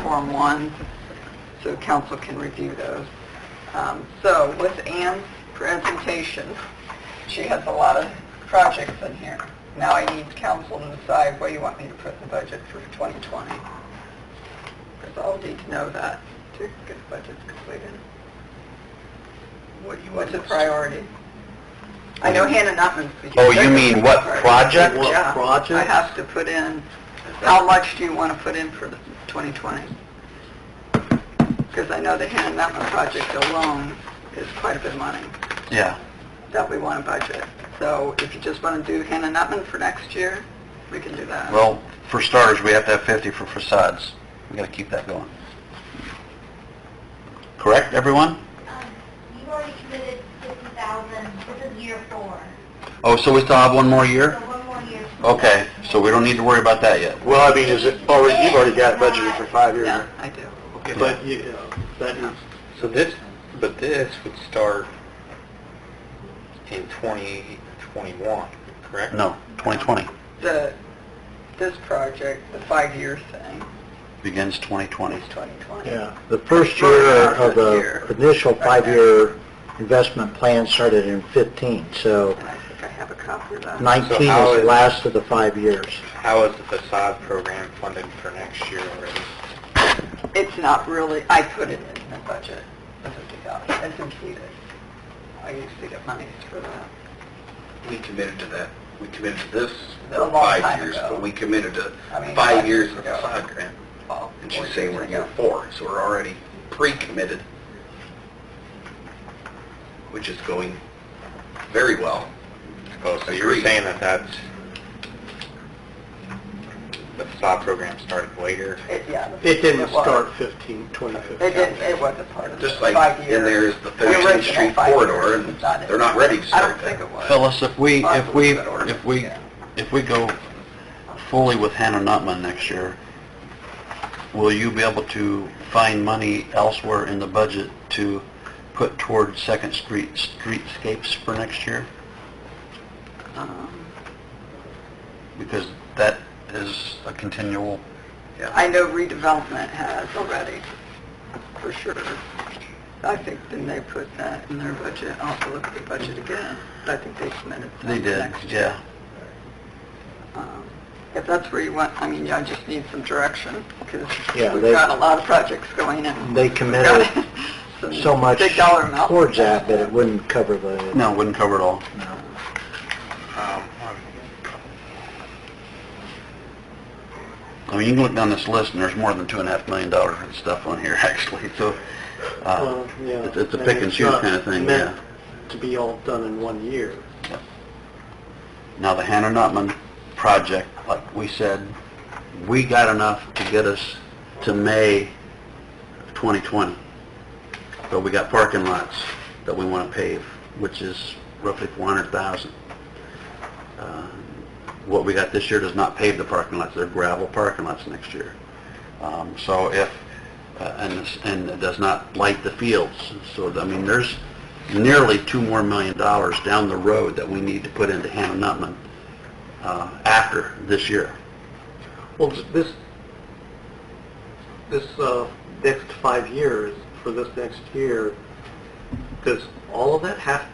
Form 1, so council can review those. Um, So with Anne's presentation, she has a lot of projects in here. Now I need council to decide where you want me to put the budget for 2020. Because I'll need to know that to get the budgets completed. What you What's a priority? I know Hannah Nutman's... Oh, you mean what project? What Yeah. project? I have to put in, how much do you want to put in for 2020? Because I know the Hannah Mountain project alone is quite a bit of money Yeah. that we want to budget. So if you just want to do Hannah Nutman for next year, we can do that. Well, for starters, we have to have 50 for facades. We gotta keep that going. Correct, everyone? Um, You've already committed fifty thousand, this is year four, Oh, so we still have one more so year? one more year. Okay, so we don't need to worry about that yet. Well, I mean, is it already, you've already got it budgeted for five years. Yeah, I do. But, you know, that is, So this, but this would start in 2021, correct? No, 2020 The, this project, the five-year thing, begins 2020. is 2020. yeah, the first year of the initial five-year investment plan started in 15, so And I think I have a copy of that. 19 is how the is- last of the five years. How is the facade program funded for next year already? It's not really, I put it in the budget, the fifty thousand, it's included. I used to get monies for that. We committed to that. We committed to this A long for five time years, ago. but we committed to I mean, five five years years of ago. the side grant. Well, And she's four saying years we're in ago. year four, so we're already pre-committed, which is going very well. Oh, so you were Agreed. saying that that's, the facade program started later? It, yeah. was. 15, It didn't, it wasn't part of the Just like five years. in there is the The original 13th Street five corridor, years and was not in they're not there. ready to I start don't think that. it was. Phyllis, if we, if we, if we, Yeah. if we go fully with Hannah Nutman next year, will you be able to find money elsewhere in the budget to put toward Second Street streetscapes for next year? Um, Because that is a continual, I know redevelopment has already, for sure. I think then they put that in their budget, I'll have to look at the budget again, but I think they submitted. that they did, next year. yeah. Um, If that's where you want, I mean, I just need some direction, because Yeah, we've they- got a lot of projects going in. They committed so much Big dollar amount. towards that, but it wouldn't cover the... No, wouldn't cover it all. Um, I mean, you can look down this list, and there's more than two and a half million dollars worth of stuff on here, actually, so, uh, Well, yeah. it's- it's a I pick mean, and it's choose not kinda thing, meant to be all done in one year. now the Hannah Nutman project, like we said, we got enough to get us to May of 2020, but we got parking lots that we want to pave, which is roughly 400,000. Uh, What we got this year does not pave the parking lots, they're gravel parking lots next year. Um, So if, uh, and this- and it does not light the fields, so, I mean, there's nearly two more million dollars down the road that we need to put into Hannah Nutman uh, after this year. Well, this, this, uh, next five years, for this next year, does all of that have,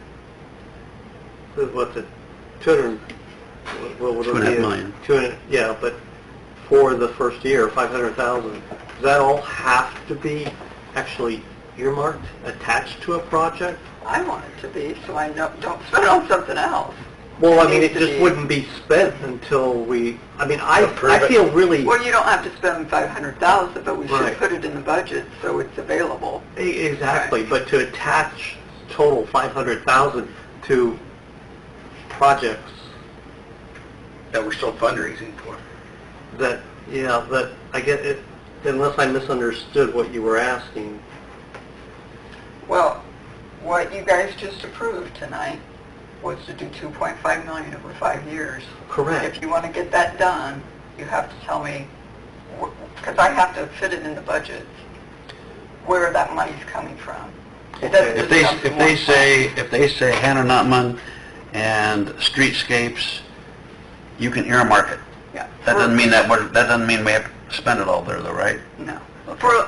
is what's it, two hundred, what would it be? Two and a half million. Two and, yeah, but for the first year, five hundred thousand, does that all have to be actually earmarked, attached to a project? I want it to be, so I know, don't spend it on something else. Well, I mean, Needs it to just be- wouldn't be spent until we, I mean, I, Approve I it. feel really, Well, you don't have to spend five hundred thousand, but we should Right. put it in the budget, so it's available. e- exactly, but to attach total 500,000 to projects That we're still fundraising for. that, yeah, that, I get it, unless I misunderstood what you were asking. Well, what you guys just approved tonight was to do two point five million over five years. If Correct. you want to get that done, you have to tell me, because I have to fit it in the budget, where that money's coming from. It doesn't If just they, come from if they one say, if they say Hannah Nutman and streetscapes, you can earmark it. Yeah. That doesn't mean that, we're- that doesn't mean we have to spend it all there though, right? No. for,